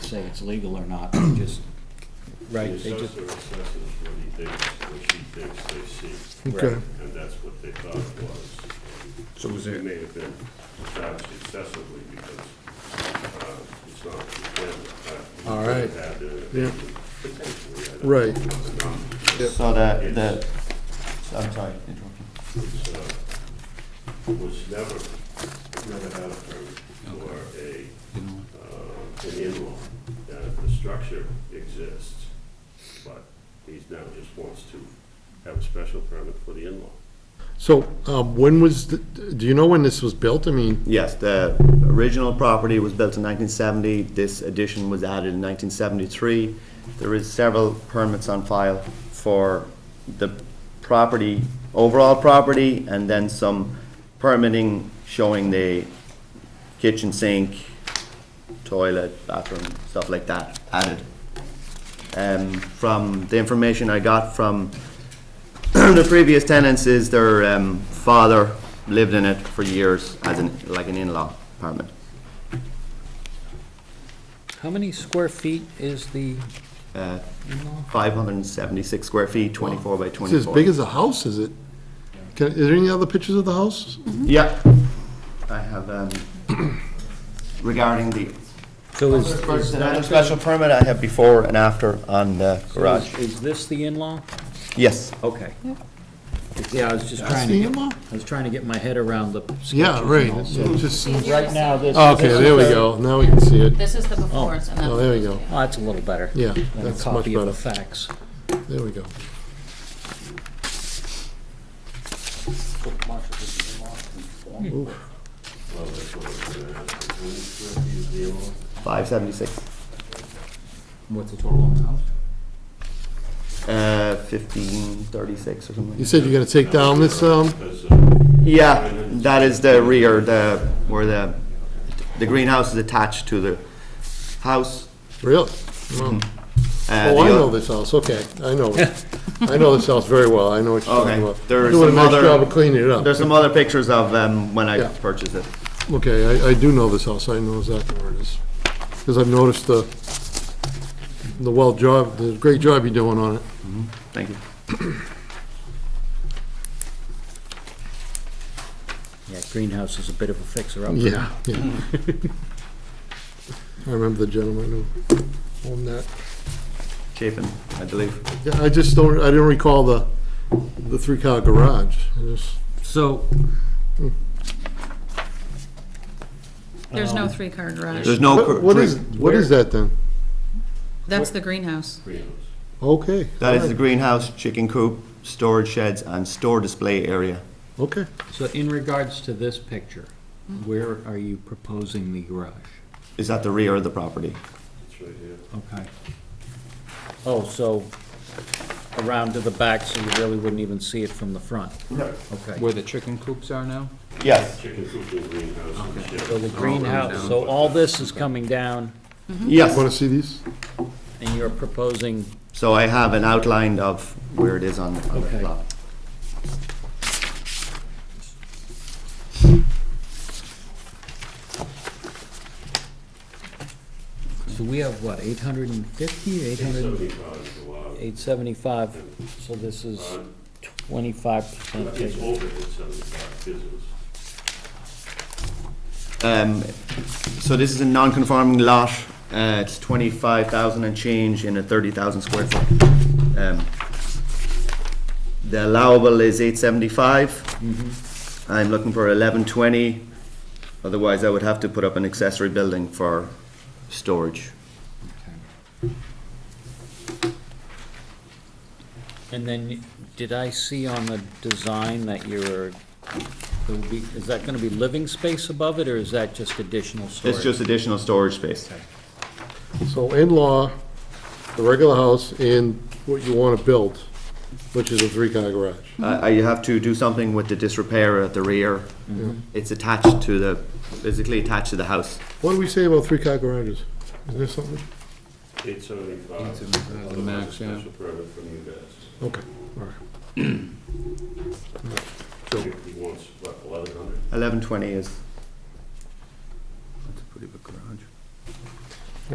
say it's legal or not, they just, Right, The they just, assessor assesses what he thinks, what she thinks they see, Okay, and that's what they thought it was. So was It it, may have been judged excessively because uh, it's not. it's not- All right. Had to- Yeah. potentially had to- right. So the, the, I'm sorry, to interrupt you. It's, uh, Was never, never had a permit for a, uh, an in-law. Uh, The structure exists, but he's now just wants to have a special permit for the in-law. So, um, when was, the- do you know when this was built? I mean, Yes, the original property was built in 1970. This addition was added in 1973. There is several permits on file for the property, overall property, and then some permitting showing the kitchen sink, toilet, bathroom, stuff like that added. Um, From the information I got from the previous tenants is their um, father lived in it for years as an, like an in-law apartment. how many square feet is the, Uh, 576 square feet, 24 by 24. it's as big as a house, is it? Can, is there any other pictures of the house? Yeah. I have, um, regarding the so is, is the that, special permit, I have before and after on the garage. is this the in-law? Yes. Okay. Yeah, I was just That's trying the to get, in-law? I was trying to get my head around the. Yeah, right. sketches and all, It's so- just- Right now, this. Oh, Okay, there we go. Now we can see it. This is the befores and that's. Oh, there we go. Oh, that's a little better. Yeah, Than a that's much copy of better. the facts. There we go. Well, that's what it's, uh, when it's gonna be the in-law. 576, What's the total on the house? uh, 1536 or something. You said you're gonna take down this, um, Because, uh, Yeah, that is the rear, the, where the, the greenhouse is attached to the house. really? Wow. uh, Oh, the I know oth- this house, okay, I know it. I know this house very well, I know what you're talking Okay, about. there are Doing a some nice other- job of cleaning it up. There's some other pictures of um, when I Yeah. purchased it. Okay, I, I do know this house, I know exactly where it is. Because I've noticed the, the well job, the great job you're doing on it. Thank you. Yeah, greenhouse is a bit of a fixer-upper. Yeah, yeah. I remember the gentleman who owned that. Chapin, I believe. Yeah, I just don't, I didn't recall the, the three-car garage. I just- So, There's Um, no three-car garage. There's no. cur- What what is, green- what is that then? That's the greenhouse. greenhouse. Okay. That is the greenhouse, chicken coop, storage sheds, and store display area. Okay. so in regards to this picture, where are you proposing the garage? Is at the rear of the property. It's right here. Okay. Oh, so around to the back, so you really wouldn't even see it from the front? No. Okay. where the chicken coops are now? Yes, Chicken coop and greenhouse and shed. So the greenhouse, so all this is coming down, Want yes. to see these? and you're proposing, So I have an outline of where it is on on the Okay. plot. so we have what, 850, 800, Seventy-five is a lot. 875? So this is 25% It's bigger. older than seventy-five, business. Um, So this is a non-conforming lot. Uh, It's 25,000 and change in a 30,000 square foot. Um, The allowable is 875. I'm looking for 1120. Otherwise, I would have to put up an accessory building for storage. And then, did I see on the design that you're, there will be- is that gonna be living space above it, or is that just additional storage? It's just additional storage space. So in-law, the regular house, and what you want to build, which is a three-car garage. Uh, You have to do something with the disrepair at the rear. It's attached to the, physically attached to the house. What do we say about three-car garages? Is there something? Eight seventy-five. the max, yeah. Special permit from you guys. Okay, all right. He wants, what, eleven hundred? 1120 is That's a pretty big garage.